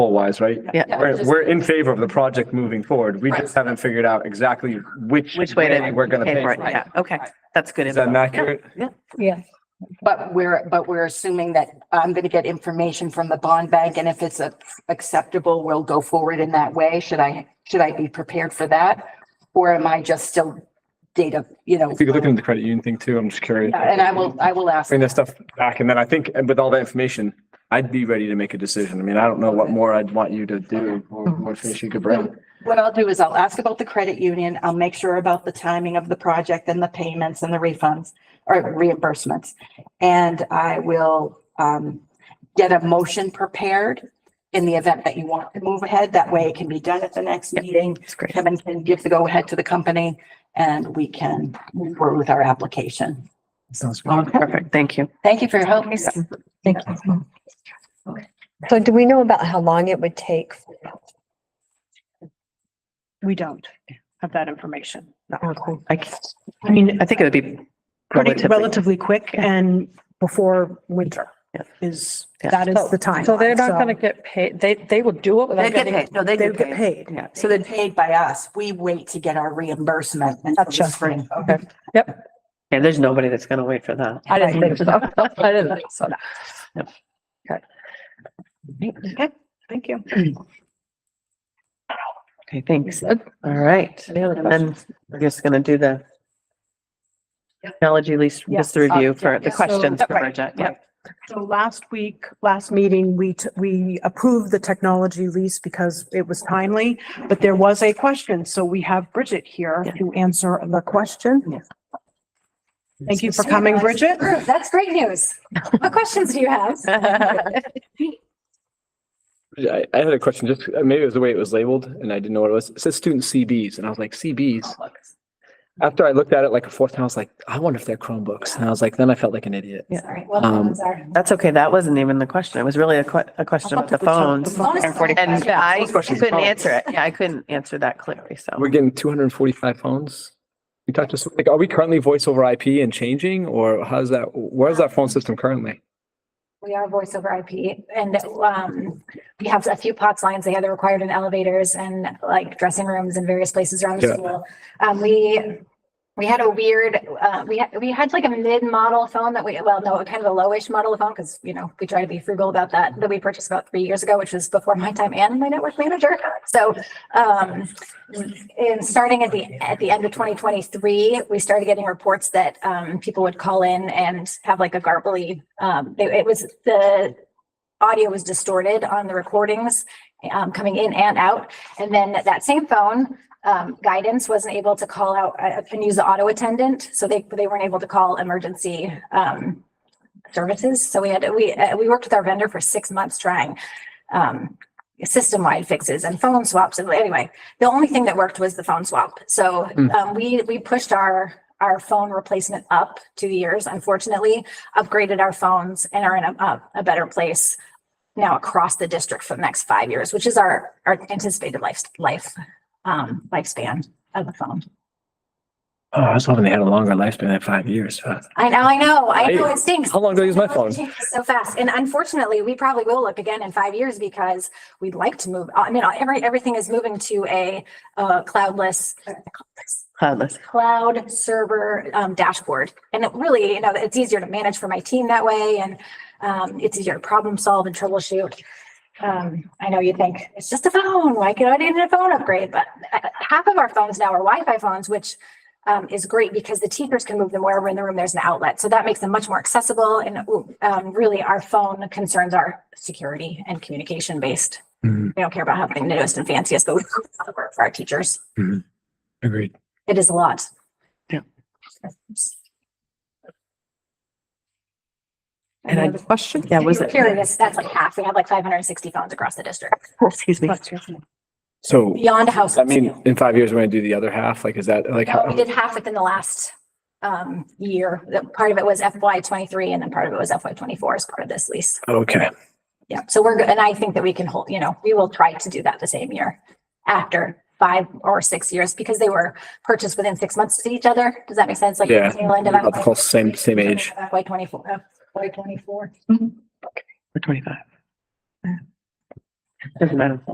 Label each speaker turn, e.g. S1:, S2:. S1: wise, right?
S2: Yeah.
S3: Yeah,
S1: We're,
S3: just-
S1: we're in favor of the project moving forward. We
S3: Right.
S1: just haven't figured out exactly which.
S2: Which way to
S1: We're gonna pay
S2: pay for it.
S1: for it.
S2: Yeah, okay, that's good.
S1: Is that
S2: info.
S1: accurate?
S4: Yeah,
S3: But we're, but we're assuming that I'm going to get information from the bond bank and if it's a- acceptable, we'll go forward in that way. Should I, should I be prepared for that? Or am I just still data, you know?
S1: If you could look into the credit union thing too, I'm just curious.
S3: Yeah, And I will, I will ask.
S1: Bring that stuff back. And then I think and with all that information, I'd be ready to make a decision. I mean, I don't know what more I'd want you to do or what information you could bring.
S3: What I'll do is I'll ask about the credit union. I'll make sure about the timing of the project and the payments and the refunds or reimbursements. And I will um get a motion prepared in the event that you want to move ahead. That way it can be done at the next meeting.
S2: That's great.
S3: Kevin can give the go ahead to the company and we can move forward with our application.
S1: Sounds
S2: Perfect, thank you.
S3: Thank you for your help.
S4: thank you. So do we know about how long it would take?
S5: We don't have that information.
S4: Okay.
S2: I, c- I mean, I think it would be
S5: Pretty
S2: relatively.
S5: relatively quick and before winter
S2: Yeah.
S5: is,
S2: Yeah.
S5: that is the time.
S6: So they're not gonna get paid, they, they will do it
S2: They
S6: without
S2: get
S6: getting.
S2: paid, no, they
S5: They
S2: get
S5: would get
S2: paid.
S5: paid.
S2: Yeah,
S3: So
S2: so
S3: they're
S2: that,
S3: paid by us. We wait to get our reimbursement until the
S5: Gotcha.
S3: spring.
S6: Okay. Yep.
S2: yeah, there's nobody that's gonna wait for that.
S6: I didn't think so. I didn't think so.
S2: Okay,
S5: Thank you.
S2: Okay, thanks. All right.
S6: Any other
S2: And then we're just gonna do the technology lease, just the review for the
S5: So-
S2: questions for
S5: Right,
S2: Bridget. Yep.
S5: So last week, last meeting, we, t- we approved the technology lease because it was timely, but there was a question. So we have Bridget here
S2: Yeah.
S5: to answer the question.
S2: Yeah.
S5: Thank you for coming, Bridget.
S7: That's great news. What questions do you have?
S1: I, I had a question, just uh, maybe it was the way it was labeled and I didn't know what it was. It says student CBs and I was like, CBs?
S2: Oh,
S1: After I looked at it like a fourth time, I was like, I wonder if they're Chromebooks. And I was like, then I felt like an idiot.
S2: Yeah.
S7: Sorry, well,
S1: Um,
S7: those are.
S2: That's okay. That wasn't even the question. It was really a que- a question about the phones. And I
S1: questions.
S2: couldn't answer it. Yeah, I couldn't answer that clearly, so.
S1: We're getting two hundred and forty-five phones. We talked to, like, are we currently voice over IP and changing or how's that, where's that phone system currently?
S7: We are voice over IP and um, we have a few POTS lines. They have the required in elevators and like dressing rooms and various places around
S1: Yeah.
S7: the school. Um, we, we had a weird, uh, we, had- we had like a mid-model phone that we, well, no, kind of a lowish model of phone because, you know, we try to be frugal about that, that we purchased about three years ago, which was before my time and my network manager. So um, and starting at the, at the end of twenty twenty-three, we started getting reports that um, people would call in and have like a garbly, um, it, it was the audio was distorted on the recordings um, coming in and out. And then that same phone um, guidance wasn't able to call out uh, and use the auto attendant, so they, they weren't able to call emergency um, services. So we had, we, uh, we worked with our vendor for six months trying um, system-wide fixes and phone swaps. And anyway, the only thing that worked was the phone swap. So
S1: Mm.
S7: um, we, we pushed our, our phone replacement up two years, unfortunately, upgraded our phones and are in a, a- a better place now across the district for the next five years, which is our, our anticipated life, life, um, lifespan of the phone.
S1: Oh, I was hoping they had a longer lifespan than five years.
S7: I know, I know, I know,
S1: Right.
S7: it stinks.
S1: How long do I use my phone?
S7: Technology changes So fast. And unfortunately, we probably will look again in five years because we'd like to move, I mean, every, everything is moving to a, uh, cloudless,
S2: Cloudless.
S7: cloud server um, dashboard. And it really, you know, it's easier to manage for my team that way and um, it's easier to problem solve and troubleshoot. Um, I know you think it's just a phone, why could I need a phone upgrade? But uh, half of our phones now are Wi-Fi phones, which um, is great because the teachers can move them wherever in the room there's an outlet. So that makes them much more accessible and um, really our phone concerns are security and communication based.
S1: Mhm.
S7: We don't care about having the newest and fanciest, but we work for our teachers.
S1: Agreed.
S7: It is a lot.
S2: And I-
S5: Another question?
S2: Yeah, was
S7: If you're
S2: it?
S7: Curious, that's like half. We have like five hundred and sixty phones across the district,
S2: Excuse me.
S1: So,
S7: beyond house.
S1: I mean, in five years, we're gonna do the other half, like, is that, like,
S7: We
S1: how,
S7: did half within the last um year. That Part of it was FY twenty-three and then part of it was FY twenty-four as part of this lease.
S1: okay.
S7: Yeah, so we're, go- and I think that we can hold, you know, we will try to do that the same year after five or six years because they were purchased within six months to each other. Does that make sense? Like
S1: Yeah,
S7: the tail end of
S1: About the
S7: FY
S1: close, same, same age.
S7: FY twenty-four, FY twenty-four.
S2: We're twenty-five. Doesn't matter.